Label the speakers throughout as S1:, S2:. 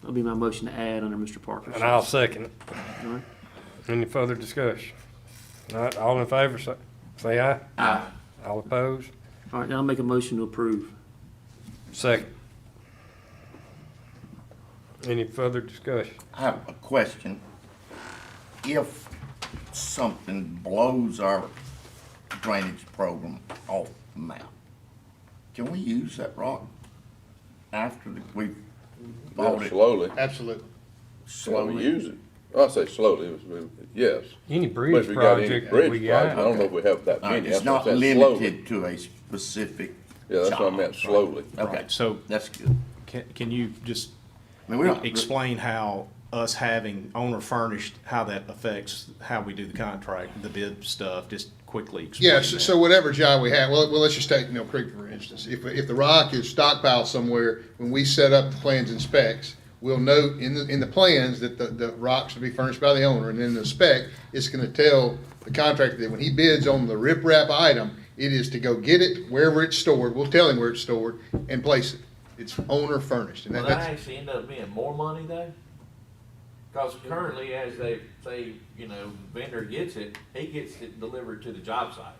S1: That'll be my motion to add under Mr. Parker.
S2: And I'll second it.
S1: All right.
S2: Any further discussion? Not, all in favor, say, say aye. Aye. All opposed?
S1: All right, now I'll make a motion to approve.
S2: Second. Any further discussion?
S3: I have a question. If something blows our drainage program off the map, can we use that rock after the- we bought it
S4: Slowly,
S5: Absolutely.
S4: slowly
S3: slowly?
S4: use it. I say slowly, it was- yes.
S2: Any
S4: But
S2: bridge
S4: if we got any
S2: project that
S4: bridge
S2: we
S4: project, I
S2: got?
S4: don't know if we have that
S3: All right,
S4: many.
S3: Uh, It's
S4: That's why I
S3: not
S4: said slowly.
S3: limited to a specific
S4: Yeah, that's what I
S3: job.
S4: meant, slowly.
S3: Okay,
S6: So
S3: that's good.
S6: can, can you just
S3: I mean, we don't-
S6: explain how us having owner furnished, how that affects how we do the contract, the bid stuff, just quickly explain
S5: Yes, so
S6: that.
S5: whatever job we have, well, well, let's just take Mill Creek for instance. If, if the rock is stockpiled somewhere, when we set up the plans and specs, we'll note in the, in the plans that the, the rocks will be furnished by the owner, and in the spec, it's gonna tell the contractor that when he bids on the riprap item, it is to go get it wherever it's stored, we'll tell him where it's stored, and place it. It's owner furnished, and that-
S7: Will that
S5: that's,
S7: actually end up being more money though? Cause currently, as they, say, you know, vendor gets it, he gets it delivered to the job site.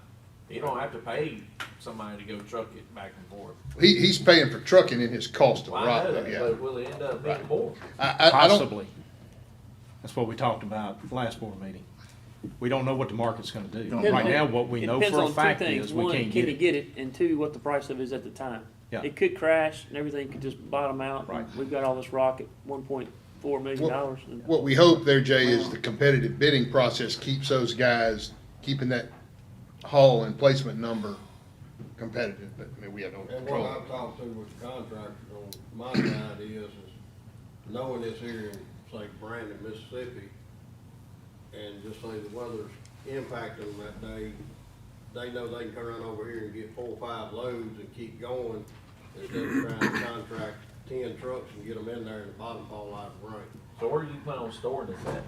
S7: You don't have to pay somebody to go truck it back and forth.
S5: he, he's paying for trucking in his cost of
S7: Well, I
S5: rock,
S7: know
S5: though,
S7: that,
S5: yeah.
S7: but will it end up being more?
S5: I, I, I don't,
S6: Possibly. That's what we talked about last board meeting. We don't know what the market's gonna do.
S3: Don't
S6: Right
S3: know.
S6: now, what we
S1: It
S6: know
S1: depends
S6: for
S1: on
S6: a
S1: two
S6: fact
S1: things.
S6: is we
S1: One,
S6: can't
S1: can
S6: get
S1: you
S6: it.
S1: get it? And two, what the price of it is at the time.
S6: Yeah.
S1: It could crash and everything could just bottom out.
S6: Right.
S1: We've got all this rock at one point four million dollars. and-
S5: What we hope there, Jay, is the competitive bidding process keeps those guys, keeping that haul and placement number competitive, but I mean, we have no
S8: And what
S5: control.
S8: I've talked to with the contractors on, my mind is, is knowing this here in, say, Brandon, Mississippi, and just say the weather's impacting them that day, they know they can turn around over here and get four, or five loads and keep going, instead of trying to contract ten trucks and get them in there and the bottom fall out of rain.
S7: So where do you plan on storing this at?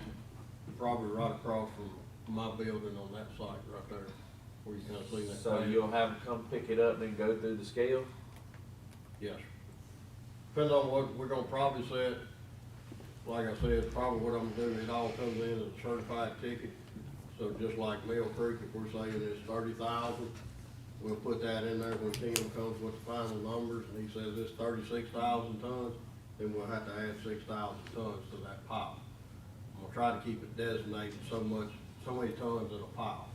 S8: Probably right across from my building on that site right there, where you kinda see that.
S7: So
S8: plant.
S7: you'll have them come pick it up and then go through the scale?
S8: Yes. Depends on what, we're gonna probably set, like I said, probably what I'm doing, it all comes in as a certified ticket. So just like Mill Creek, if we're saying it's thirty thousand, we'll put that in there when Tim comes with the final numbers and he says it's thirty-six thousand tons, then we'll have to add six thousand tons to that pile. I'm gonna try to keep it designated so much, so many tons in a pile.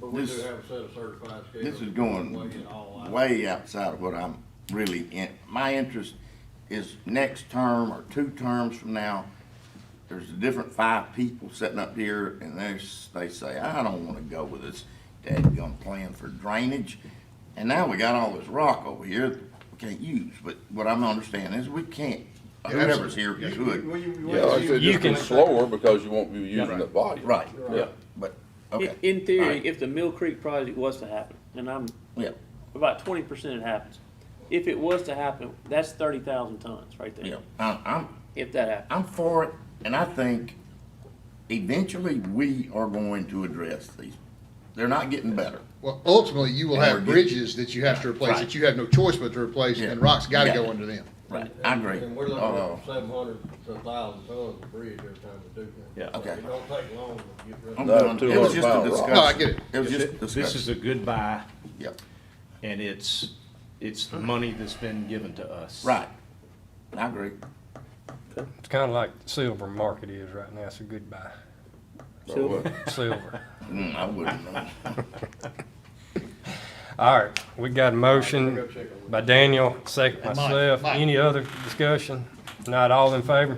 S8: But we do
S3: This-
S8: have a set of certified scales.
S3: This is
S8: Weigh
S3: going
S8: it all out.
S3: way outside of what I'm really in. My interest is next term or two terms from now, there's a different five people sitting up here and there's, they say, I don't wanna go with this dadgum plan for drainage. And now we got all this rock over here that we can't use, but what I'm understanding is we can't, whoever's here could.
S8: Will you- will
S4: Yeah, I
S8: you-
S4: said
S2: You
S4: just
S2: can-
S4: be slower because you won't be using
S6: Right.
S4: that volume.
S3: Right,
S4: Yeah.
S3: but,
S1: In-
S3: okay.
S1: In
S3: All
S1: theory,
S3: right.
S1: if the Mill Creek project was to happen, and I'm
S3: Yeah,
S1: about twenty percent it happens. If it was to happen, that's thirty thousand tons right
S3: yeah,
S1: there,
S3: I, I'm,
S1: if that happens.
S3: I'm for it, and I think eventually we are going to address these. They're not getting better.
S5: Well, ultimately, you will
S3: And
S5: have
S3: we're getting-
S5: bridges that you have to replace,
S3: Right.
S5: that you have no choice but to replace,
S3: Yeah.
S5: and rock's gotta
S3: Yeah.
S5: go under them.
S3: Right. I agree.
S8: And we're looking
S3: Uh,
S8: at seven hundred to thousand tons of bridge every time we do that.
S3: Yeah. Okay.
S8: It don't take long to get rid of
S3: I'm
S8: it.
S4: No,
S3: going- It was
S4: 200
S3: just a
S4: pound rock.
S3: discussion.
S5: No, I get it.
S3: was just a
S6: This is
S3: discussion.
S6: a good buy
S3: Yep,
S6: and it's, it's the money that's been given to us.
S3: right. I agree.
S2: It's kinda like the silver market is right now, it's a good buy,
S1: So,
S2: silver.
S3: Mm, I wouldn't know.
S2: All right, we got a
S8: Go
S2: motion
S8: check on it.
S2: by Daniel, second
S5: And Mike,
S2: myself.
S5: Mike.
S2: Any other discussion? Not all in favor?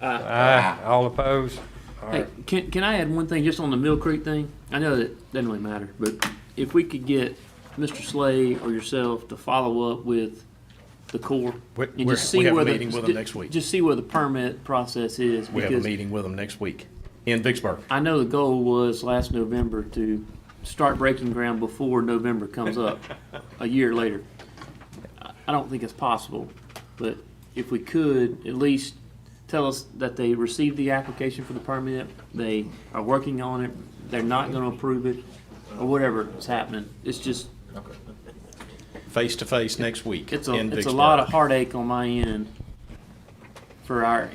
S1: uh,
S2: Aye, all opposed?
S1: Hey, can, can I add one thing just on the Mill Creek thing? I know that doesn't really matter, but if we could get Mr. Slay or yourself to follow up with the Corps.
S6: We-
S1: and
S6: we're-
S1: just see
S6: we have a
S1: where the-
S6: meeting with them next week.
S1: Just see where the permit process is.
S6: We have a
S1: because
S6: meeting with them next week in Vicksburg.
S1: I know the goal was last November to start breaking ground before November comes up, a year later. I- I don't think it's possible, but if we could, at least tell us that they received the application for the permit, they are working on it, they're not gonna approve it, or whatever is happening. It's just,
S6: face to face next week
S1: it's a,
S6: in
S1: it's a
S6: Vicksburg.
S1: lot of heartache on my end for our